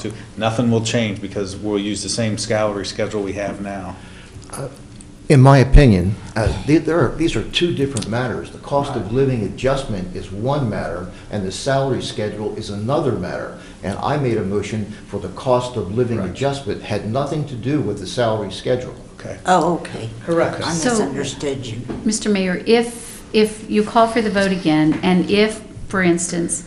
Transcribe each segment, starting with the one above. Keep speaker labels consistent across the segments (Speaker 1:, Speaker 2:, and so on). Speaker 1: to, nothing will change because we'll use the same salary schedule we have now.
Speaker 2: In my opinion, uh, the- there are, these are two different matters. The cost of living adjustment is one matter, and the salary schedule is another matter. And I made a motion for the cost of living
Speaker 1: Right.
Speaker 2: adjustment, had nothing to do with the salary schedule.
Speaker 1: Okay.
Speaker 3: Oh, okay.
Speaker 1: Correct.
Speaker 3: I
Speaker 4: So-
Speaker 3: misunderstood you.
Speaker 4: Mr. Mayor, if, if you call for the vote again, and if, for instance,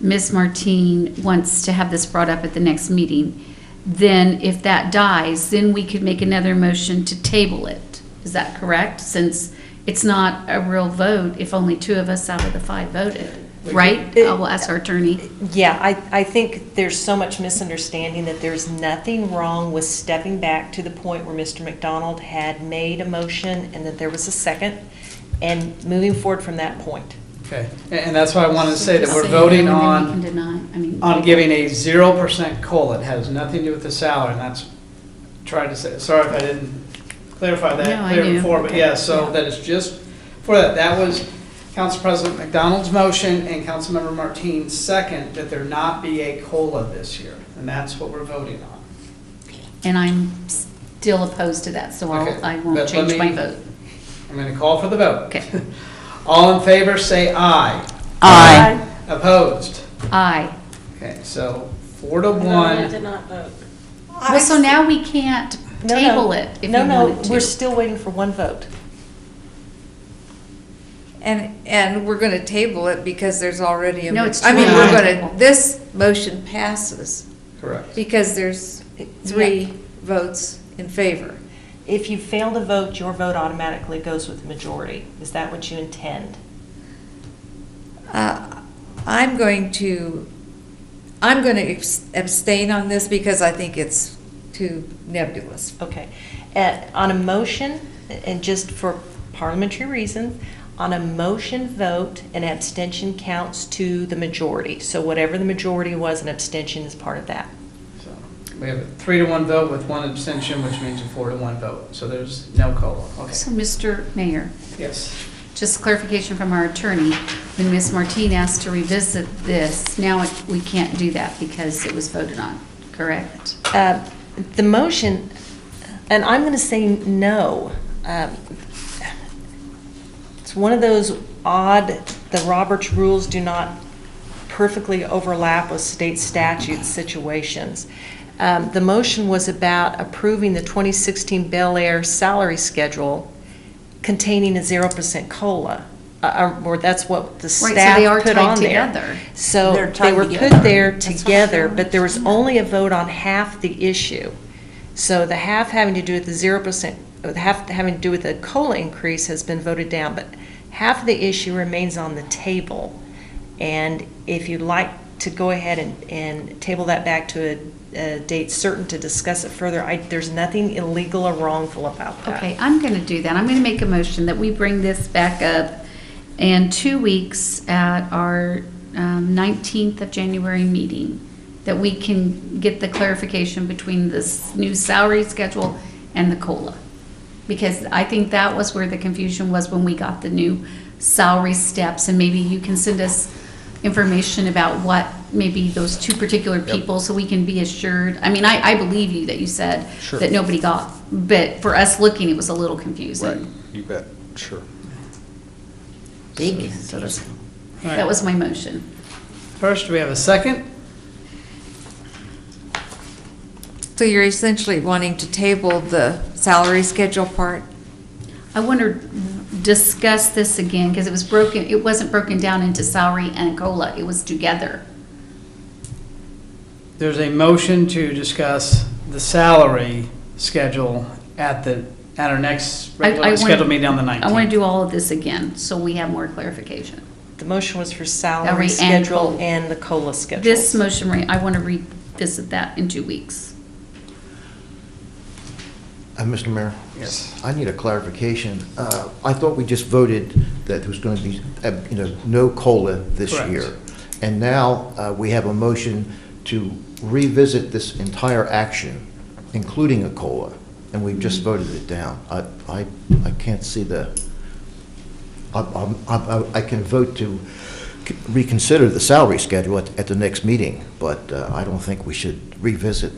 Speaker 4: Ms. Martine wants to have this brought up at the next meeting, then if that dies, then we could make another motion to table it. Is that correct? Since it's not a real vote if only two of us out of the five voted, right? I will ask our attorney.
Speaker 5: Yeah, I, I think there's so much misunderstanding that there's nothing wrong with stepping back to the point where Mr. McDonald had made a motion and that there was a second, and moving forward from that point.
Speaker 6: Okay, and and that's why I wanted to say that
Speaker 4: Just
Speaker 6: we're
Speaker 4: say
Speaker 6: voting
Speaker 4: no, and
Speaker 6: on,
Speaker 4: then we can deny, I mean.
Speaker 6: on giving a zero percent COLA. It has nothing to do with the salary, and that's, tried to say, sorry if I didn't clarify
Speaker 4: No,
Speaker 6: that
Speaker 4: I
Speaker 6: clear
Speaker 4: do.
Speaker 6: before, but
Speaker 4: Okay.
Speaker 6: yeah, so
Speaker 4: Yeah.
Speaker 6: that is just for that. That was Council President McDonald's motion and Councilmember Martine's second, that there not be a COLA this year, and that's what we're voting on.
Speaker 4: And I'm still opposed to that, so
Speaker 6: Okay,
Speaker 4: I'll, I
Speaker 6: but
Speaker 4: won't
Speaker 6: let
Speaker 4: change my
Speaker 6: me-
Speaker 4: vote.
Speaker 6: I'm gonna call for the vote.
Speaker 4: Okay.
Speaker 6: All in favor, say aye.
Speaker 3: Aye.
Speaker 6: Opposed?
Speaker 4: Aye.
Speaker 6: Okay, so four to one.
Speaker 4: Well, so now we can't
Speaker 5: No, no.
Speaker 4: table it if you
Speaker 5: No, no,
Speaker 4: wanted to.
Speaker 5: we're still waiting for one vote.
Speaker 7: And, and we're gonna table it because there's already a.
Speaker 4: No, it's
Speaker 7: I mean,
Speaker 4: too
Speaker 7: we're
Speaker 4: high.
Speaker 7: gonna, this motion passes
Speaker 6: Correct.
Speaker 7: because there's three votes in favor.
Speaker 5: If you fail to vote, your vote automatically goes with the majority. Is that what you intend?
Speaker 7: Uh, I'm going to, I'm gonna abs- abstain on this because I think it's too nebulous.
Speaker 5: Okay. Uh, On a motion, and just for parliamentary reasons, on a motion vote, an abstention counts to the majority. So whatever the majority was, an abstention is part of that.
Speaker 6: So We have a three to one vote with one abstention, which means a four to one vote. So there's no COLA.
Speaker 4: So,
Speaker 6: Okay.
Speaker 4: Mr. Mayor,
Speaker 6: Yes.
Speaker 4: just clarification from our attorney, when Ms. Martine asked to revisit this, now it- we can't do that because it was voted on, correct?
Speaker 5: Uh, The motion, and I'm going to say no. Um, It's one of those odd, the Roberts rules do not perfectly overlap with state statute situations. Um, The motion was about approving the 2016 Bel Air salary schedule containing a 0% COLA, uh, uh, or that's what the
Speaker 4: so
Speaker 5: staff
Speaker 4: they
Speaker 5: put on there.
Speaker 4: are tied together.
Speaker 5: So
Speaker 3: They're
Speaker 5: they
Speaker 3: tied
Speaker 5: were put
Speaker 3: together.
Speaker 5: there
Speaker 4: That's what I'm
Speaker 5: together,
Speaker 4: trying to
Speaker 5: but there was
Speaker 4: understand.
Speaker 5: only a vote on half the issue. So the half having to do with the zero percent, the half having to do with the COLA increase has been voted down, but half of the issue remains on the table. And if you'd like to go ahead and, and table that back to a, a date certain to discuss it further, I, there's nothing illegal or wrongful about that.
Speaker 4: Okay, I'm going to do that. I'm going to make a motion that we bring this back up in two weeks at our um, 19th of January meeting, that we can get the clarification between this new salary schedule and the COLA. Because I think that was where the confusion was when we got the new salary steps. And maybe you can send us information about what maybe those two particular people, so we can be assured. I mean, I, I believe you that you said
Speaker 1: Sure.
Speaker 4: that nobody got, but for us looking, it was a little confusing.
Speaker 1: You bet, sure.
Speaker 3: Big.
Speaker 4: So that's-
Speaker 6: All right.
Speaker 4: That was my motion.
Speaker 6: First, we have a second.
Speaker 7: So you're essentially wanting to table the salary schedule part?
Speaker 4: I want to discuss this again, because it was broken, it wasn't broken down into salary and COLA, it was together.
Speaker 6: There's a motion to discuss the salary schedule at the, at our next
Speaker 4: I- I
Speaker 6: regularly
Speaker 4: wanna-
Speaker 6: scheduled meeting on the 19th.
Speaker 4: I want to do all of this again, so we have more clarification.
Speaker 5: The motion was for
Speaker 4: Every
Speaker 5: salary
Speaker 4: and
Speaker 5: schedule
Speaker 4: COLA.
Speaker 5: and the COLA schedule.
Speaker 4: This motion, re- I want to revisit that in two weeks.
Speaker 2: Uh, Mr. Mayor?
Speaker 6: Yes.
Speaker 2: I need a clarification. Uh, I thought we just voted that there was going to be, uh, you know, no COLA this
Speaker 6: Correct.
Speaker 2: year. And now uh, we have a motion to revisit this entire action, including a COLA, and we've just
Speaker 6: Mm-hmm.
Speaker 2: voted it down. I, I, I can't see the, I, I, I can vote to reconsider the salary schedule at, at the next meeting, but uh, I don't think we should revisit